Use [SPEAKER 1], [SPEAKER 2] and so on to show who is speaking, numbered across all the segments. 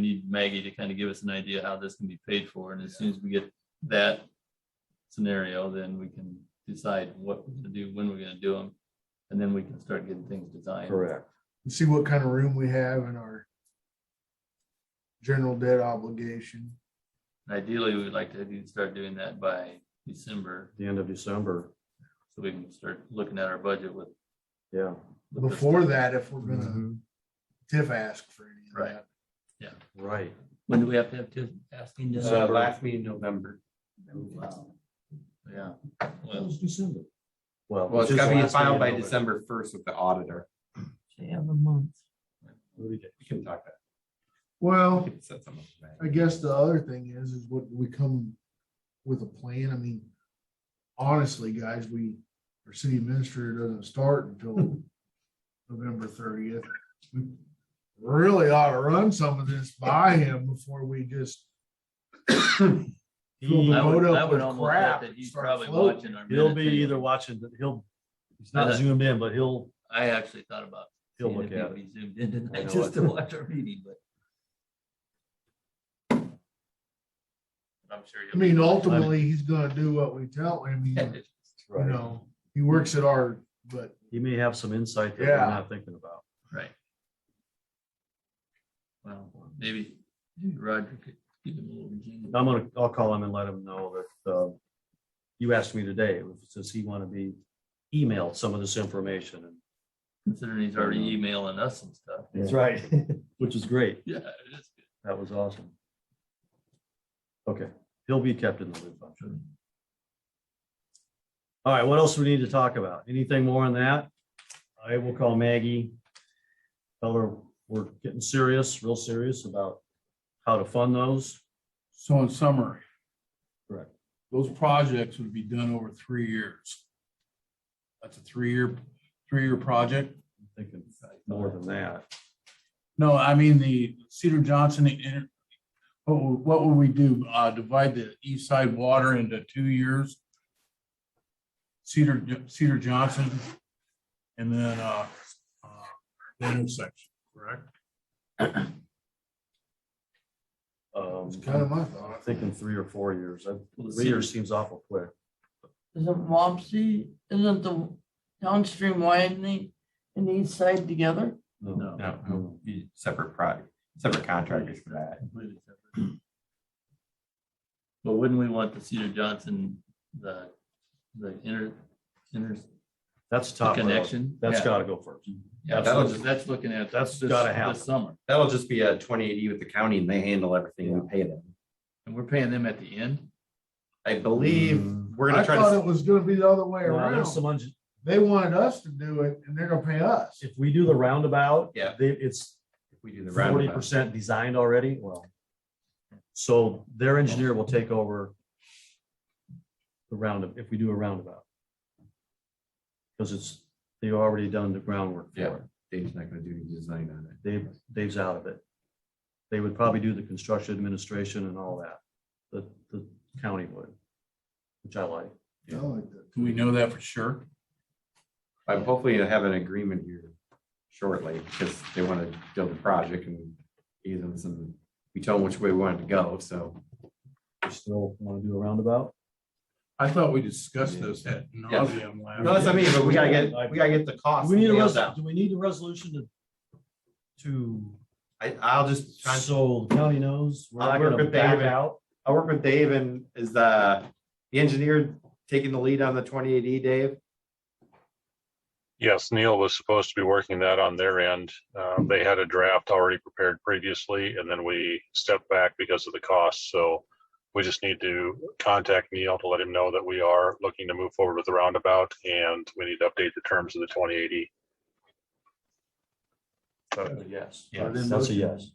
[SPEAKER 1] need Maggie to kind of give us an idea how this can be paid for, and as soon as we get that scenario, then we can decide what to do, when we're gonna do them, and then we can start getting things designed.
[SPEAKER 2] Correct.
[SPEAKER 3] and see what kind of room we have in our general debt obligation.
[SPEAKER 1] Ideally, we'd like to do- start doing that by December,
[SPEAKER 2] The end of December.
[SPEAKER 1] so we can start looking at our budget with.
[SPEAKER 2] Yeah.
[SPEAKER 1] with this
[SPEAKER 3] Before
[SPEAKER 1] stuff.
[SPEAKER 3] that, if we're
[SPEAKER 4] Mm-hmm.
[SPEAKER 2] Mm-hmm.
[SPEAKER 3] gonna, TIF ask for any of
[SPEAKER 1] Right.
[SPEAKER 3] that.
[SPEAKER 2] Right.
[SPEAKER 1] When do we have to have to asking?
[SPEAKER 4] Uh, last meeting in November.
[SPEAKER 1] Yeah, well,
[SPEAKER 2] December. Well.
[SPEAKER 4] Well, it's
[SPEAKER 2] just
[SPEAKER 4] gotta be
[SPEAKER 2] last
[SPEAKER 4] filed by
[SPEAKER 2] minute.
[SPEAKER 4] December first with the auditor.
[SPEAKER 2] We get-
[SPEAKER 4] We can talk that.
[SPEAKER 3] Well,
[SPEAKER 4] we can set something up.
[SPEAKER 3] I guess the other thing is, is what we come with a plan. I mean, honestly, guys, we, our city administrator doesn't start until November thirtieth. We Really ought to run some of this by him before we just Fill the
[SPEAKER 1] I would,
[SPEAKER 3] load up
[SPEAKER 1] I would
[SPEAKER 3] with
[SPEAKER 1] almost bet
[SPEAKER 3] crap
[SPEAKER 1] that
[SPEAKER 3] and
[SPEAKER 1] he's
[SPEAKER 3] start
[SPEAKER 1] probably
[SPEAKER 3] floating.
[SPEAKER 1] watching our.
[SPEAKER 2] He'll
[SPEAKER 1] minutes
[SPEAKER 2] be
[SPEAKER 1] anyway.
[SPEAKER 2] either watching, the he'll, he's
[SPEAKER 1] Uh,
[SPEAKER 2] not zoomed in, but he'll,
[SPEAKER 1] I actually thought about.
[SPEAKER 2] he'll
[SPEAKER 1] seeing
[SPEAKER 2] look
[SPEAKER 1] if
[SPEAKER 2] at
[SPEAKER 1] he'd
[SPEAKER 2] it.
[SPEAKER 1] be Zoomed in
[SPEAKER 2] I
[SPEAKER 1] tonight
[SPEAKER 2] know
[SPEAKER 1] just
[SPEAKER 2] it.
[SPEAKER 1] to watch our meeting, but. I'm sure.
[SPEAKER 3] I
[SPEAKER 1] he'll-
[SPEAKER 3] mean, ultimately, he's gonna do what we tell him. He- You
[SPEAKER 2] Right.
[SPEAKER 3] know, he works at our, but
[SPEAKER 2] He may have some insight that
[SPEAKER 3] Yeah.
[SPEAKER 2] we're not thinking about.
[SPEAKER 1] Right. Well, maybe maybe Roger could give him a little. Virginia.
[SPEAKER 2] I'm gonna, I'll call him and let him know that, uh, you asked me today, if- does he want to be emailed some of this information? And
[SPEAKER 1] Considering he's already emailing us and stuff.
[SPEAKER 2] That's right. Which is great.
[SPEAKER 1] Yeah, it is good.
[SPEAKER 2] That was awesome. Okay, he'll be kept in the loop, I'm sure. All right, what else do we need to talk about? Anything more on that? I will call Maggie. Tell her we're getting serious, real serious about how to fund those.
[SPEAKER 5] So in summary.
[SPEAKER 2] Correct.
[SPEAKER 5] Those projects would be done over three years. That's a three-year, three-year project.
[SPEAKER 2] I'm Thinking more than that.
[SPEAKER 5] No, I mean, the Cedar Johnson, the inter- what, would- what would we do? Uh, divide the east side water into two years? Cedar, Jo- Cedar Johnson and then, uh, uh, the intersection, correct?
[SPEAKER 3] it's kind
[SPEAKER 2] Um,
[SPEAKER 3] of my
[SPEAKER 2] I'm
[SPEAKER 3] thought.
[SPEAKER 2] thinking three or four years. I-
[SPEAKER 1] Well, the
[SPEAKER 2] Three
[SPEAKER 1] cedar-
[SPEAKER 2] years seems awful quick.
[SPEAKER 6] Isn't Wapsie, isn't the downstream widening and east side together?
[SPEAKER 1] No.
[SPEAKER 4] No, it'll be separate product, separate contractors for that.
[SPEAKER 1] completely separate. But wouldn't we want the Cedar Johnson, the, the inner, inner
[SPEAKER 2] That's top. priority.
[SPEAKER 1] connection?
[SPEAKER 2] That's
[SPEAKER 1] Yeah.
[SPEAKER 2] gotta go first.
[SPEAKER 1] Yeah,
[SPEAKER 4] That'll
[SPEAKER 1] that's,
[SPEAKER 4] just-
[SPEAKER 1] that's looking at.
[SPEAKER 2] That's
[SPEAKER 1] this-
[SPEAKER 2] gotta
[SPEAKER 1] this
[SPEAKER 2] happen.
[SPEAKER 1] Summer,
[SPEAKER 4] That'll just be a twenty eighty with the county and they handle everything. We pay them.
[SPEAKER 1] and we're paying them at the end?
[SPEAKER 4] I believe
[SPEAKER 2] Mm.
[SPEAKER 4] we're
[SPEAKER 3] I
[SPEAKER 4] gonna try
[SPEAKER 3] thought
[SPEAKER 4] to,
[SPEAKER 3] it was gonna be the other way
[SPEAKER 2] Now,
[SPEAKER 3] around.
[SPEAKER 2] there's some unj-
[SPEAKER 3] They wanted us to do it and they're gonna pay us.
[SPEAKER 2] If we do the roundabout.
[SPEAKER 4] Yeah.
[SPEAKER 2] They, it's
[SPEAKER 4] if we do the
[SPEAKER 2] forty
[SPEAKER 4] roundabout.
[SPEAKER 2] percent designed already, well. So their engineer will take over. The roundup, if we do a roundabout. Because it's, they've already done the groundwork
[SPEAKER 4] Yeah.
[SPEAKER 2] for it,
[SPEAKER 4] Dave's not gonna do any design on it.
[SPEAKER 2] Dave, Dave's out of it. They would probably do the construction administration and all that, the, the county would. Which I like,
[SPEAKER 3] I like that.
[SPEAKER 5] Do we know that for sure?
[SPEAKER 4] I'm hopefully gonna have an agreement here shortly because they want to build a project and give them some, we told them which way we wanted to go, so.
[SPEAKER 2] we still want to do a roundabout,
[SPEAKER 5] I thought we discussed this at nauseam last.
[SPEAKER 4] No, that's what I mean, but we gotta get, we gotta get the
[SPEAKER 2] do
[SPEAKER 4] cost.
[SPEAKER 2] we need a,
[SPEAKER 4] nailed
[SPEAKER 2] res-
[SPEAKER 4] down.
[SPEAKER 2] do we need a resolution to? To,
[SPEAKER 4] I, I'll just, try and-
[SPEAKER 2] so the county knows. we're
[SPEAKER 4] I'll
[SPEAKER 2] we're
[SPEAKER 4] work
[SPEAKER 2] gonna
[SPEAKER 4] with
[SPEAKER 2] back
[SPEAKER 4] David.
[SPEAKER 2] out.
[SPEAKER 4] I'll work with Dave and is the, the engineer taking the lead on the twenty eighty, Dave?
[SPEAKER 7] Yes, Neil was supposed to be working that on their end. Um, They had a draft already prepared previously, and then we stepped back because of the cost. So we just need to contact Neil to let him know that we are looking to move forward with the roundabout, and we need to update the terms of the 2080.
[SPEAKER 2] Yes.
[SPEAKER 4] Yes.
[SPEAKER 2] That's a yes.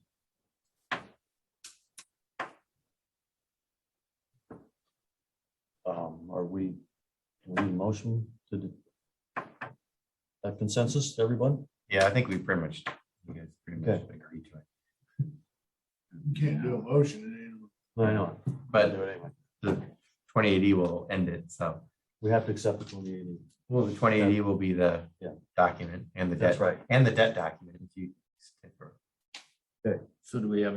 [SPEAKER 2] Um, are we, we need a motion to do that consensus, everyone?
[SPEAKER 4] Yeah, I think we pretty much, you guys pretty
[SPEAKER 2] much
[SPEAKER 4] agreed to it.
[SPEAKER 3] You Can't do a motion in it.
[SPEAKER 2] I know.
[SPEAKER 4] But the twenty eighty will end it, so,
[SPEAKER 2] We have to accept the twenty eighty.
[SPEAKER 4] well, the twenty eighty will be the
[SPEAKER 2] Yeah.
[SPEAKER 4] document and the
[SPEAKER 2] That's
[SPEAKER 4] debt,
[SPEAKER 2] right.
[SPEAKER 4] and the debt document. if you-
[SPEAKER 1] So do we have any